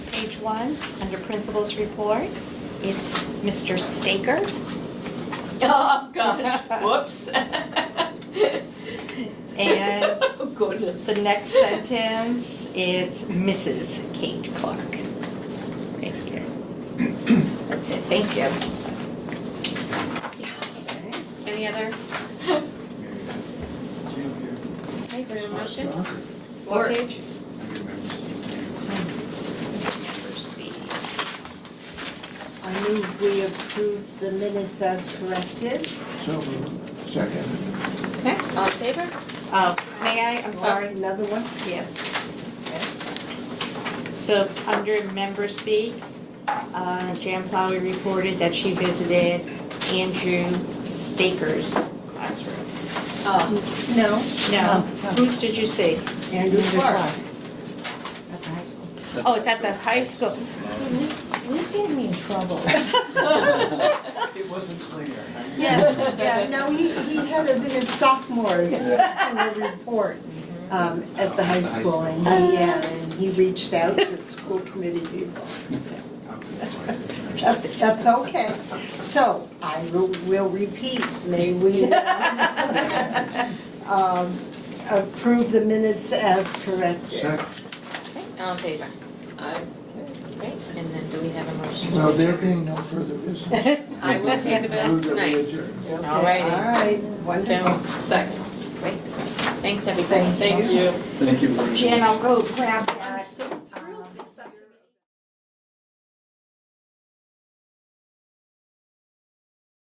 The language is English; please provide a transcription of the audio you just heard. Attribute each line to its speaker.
Speaker 1: one, under principals report, it's Mr. Staker.
Speaker 2: Oh, gosh, whoops.
Speaker 1: And
Speaker 2: Oh, goodness.
Speaker 1: the next sentence, it's Mrs. Kate Clark. Right here. That's it, thank you.
Speaker 2: Any other?
Speaker 1: Okay.
Speaker 2: Your motion?
Speaker 1: What
Speaker 2: Or-
Speaker 1: page?
Speaker 3: I move we approve the minutes as corrected.
Speaker 4: So moved. Second.
Speaker 2: Okay, all in favor?
Speaker 1: Uh, May I, I'm sorry.
Speaker 3: Another one?
Speaker 1: Yes. So under member speak, uh, Jan Plowey reported that she visited Andrew Staker's classroom.
Speaker 2: Oh,
Speaker 3: No.
Speaker 1: No, whose did you see?
Speaker 3: Andrew Clark.
Speaker 5: At the high school.
Speaker 1: Oh, it's at the high school.
Speaker 5: Who's getting me in trouble?
Speaker 4: It wasn't clear.
Speaker 3: Yeah, yeah, no, he, he had us in his sophomores in the report um, at the high school. And he, yeah, and he reached out to school committee people. That's, that's okay. So I will, will repeat, may we um, approve the minutes as corrected.
Speaker 4: Second.
Speaker 2: okay, all in favor? Aye. Great, and then do we have a motion?
Speaker 4: Well, there being no further business.
Speaker 2: I will pay the bills
Speaker 4: Move that we
Speaker 2: tonight.
Speaker 4: adjourn.
Speaker 3: Okay,
Speaker 2: All righty.
Speaker 3: All right,
Speaker 2: So,
Speaker 3: wonderful.
Speaker 2: second, great. Thanks, everybody.
Speaker 3: Thank you.
Speaker 2: you.
Speaker 6: Thank you. very much.
Speaker 1: Jan, I'll go grab that.